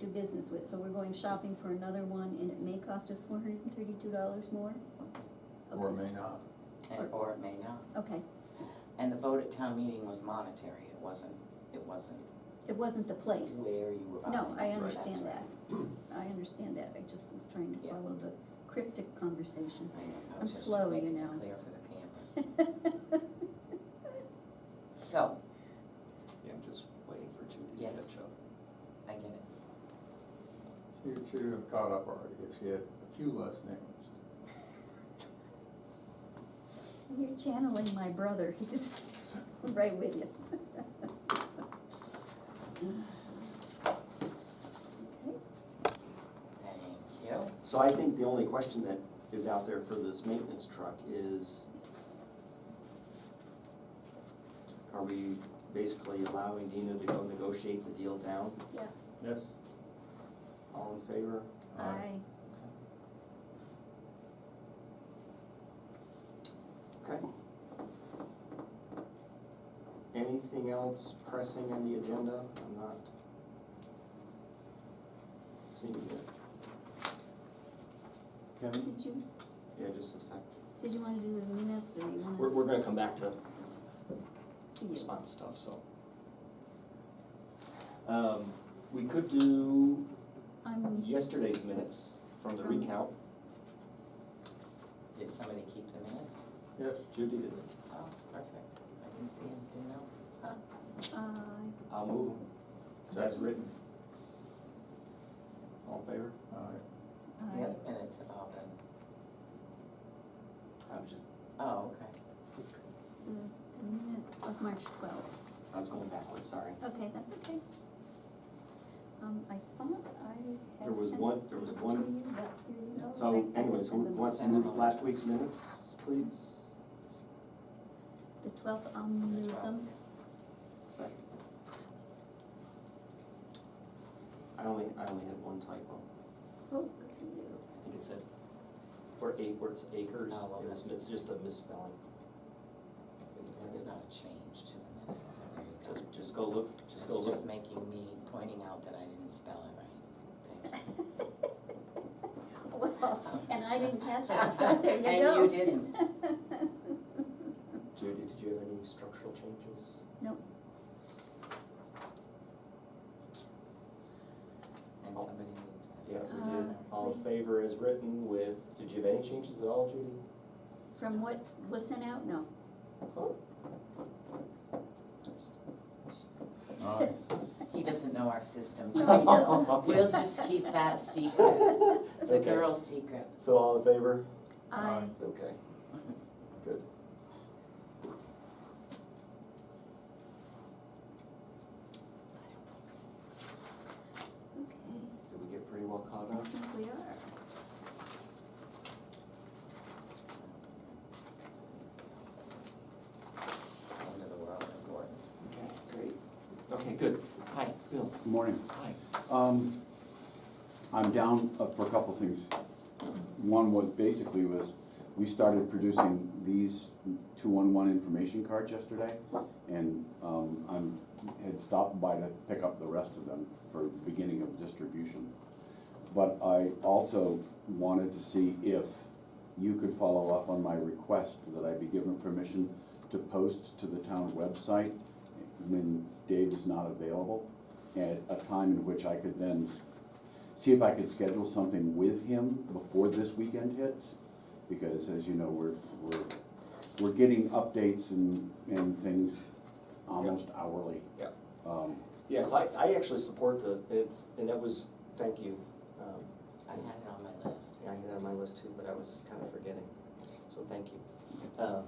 do business with, so we're going shopping for another one, and it may cost us four hundred and thirty-two dollars more? or it may not. Or- and, or it may not. Okay, And the vote at town meeting was monetary, it wasn't, it wasn't it wasn't the place. where you were buying. No, I That's understand right. that. I understand that, I just was trying to Yeah. follow the cryptic conversation. I know, I I'm was just slow, you making it know. clear for the camera. So, Yeah, I'm just waiting for Judy to Yes. catch up. I get it. She should have caught up already if she had a few less names. You're channeling my brother, he's right with you. Okay. Thank you. So I think the only question that is out there for this maintenance truck is, are we basically allowing Dina to go negotiate the deal down? Yeah, Yes. All in favor? I, Okay. Anything else pressing on the agenda? I'm not seeing it. did Kevin? you, Yeah, just a sec. did you wanna do the minutes, or you wanna? We're, we're gonna come back to to you? response stuff, so. Um, we could do I'm, yesterday's minutes from the From- recount. Did somebody keep the minutes? Yes. Judy did. Oh, perfect. I can see and do know. Huh. uh, I'll move them. That's written. All in favor? All right. The I, other minutes have all been, I was just, oh, okay. the the minutes of March twelfth. I was going backwards, sorry. Okay, that's okay. Um, I thought I There had was one- there sent was these to one- you, but here you go. I- I So did anyways, who send them. wants to move last week's minutes, please? The twelfth, I'll move them. Second. I only, I only had one typo. Oh, good for you. I think it said, for eight words acres, Oh, well, it was, that's- it's just a misspelling. That's not a change to the minutes, so there you go. Just, just go look, just go It's look. just making me, pointing out that I didn't spell it right. Thank you. Well, and I didn't catch it, so there you go. And you didn't. Judy, did you have any structural changes? And somebody moved. Yeah, we Uh, did. All in favor as written with, did you have any changes at all, Judy? From what was sent out, no. All right. He doesn't know our system, No, he Teresa. doesn't. We'll just keep that secret. It's a Okay. girl secret. So all in favor? I, Aye. Okay. Good. okay, Did we get pretty well caught I up? think we are. End of the world, Gordon. Okay, great. Okay, good. Hi, Bill. Good morning. Hi. Um, I'm down uh, for a couple things. One was basically was, we started producing these two-one-one information cards yesterday. And, um, I'm, had stopped by to pick up the rest of them for beginning of distribution. But I also wanted to see if you could follow up on my request that I be given permission to post to the town website when Dave is not available, at a time in which I could then s- see if I could schedule something with him before this weekend hits. Because as you know, we're, we're, we're getting updates and, and things almost hourly. Yep. Um, Yes, I, I actually support the, it's, and that was, thank you. Um, I had it on my list. I had it on my list too, but I was kind of forgetting, so thank you. Um,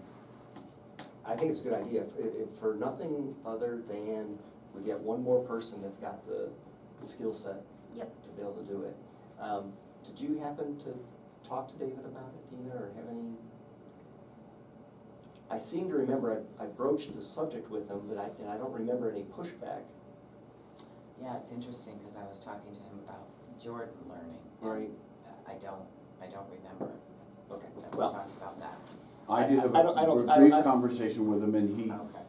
I think it's a good idea, if, if, for nothing other than we get one more person that's got the, the skill set Yep, to be able to do it. Um, Did you happen to talk to David about it, Dina, or have any? I seem to remember I I broached the subject with him, but I, and I don't remember any pushback. Yeah, it's interesting, because I was talking to him about Jordan learning. uh, Right. I don't, I don't remember Okay, that we well, talked about that. I did have I- I don't- I Oh. a don't- I don't- brief I- conversation with him and he Okay.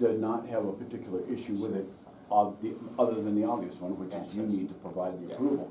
did not have a particular issue with it. ob- the- other than the obvious one, which is you Access. need to provide the Yeah. approval.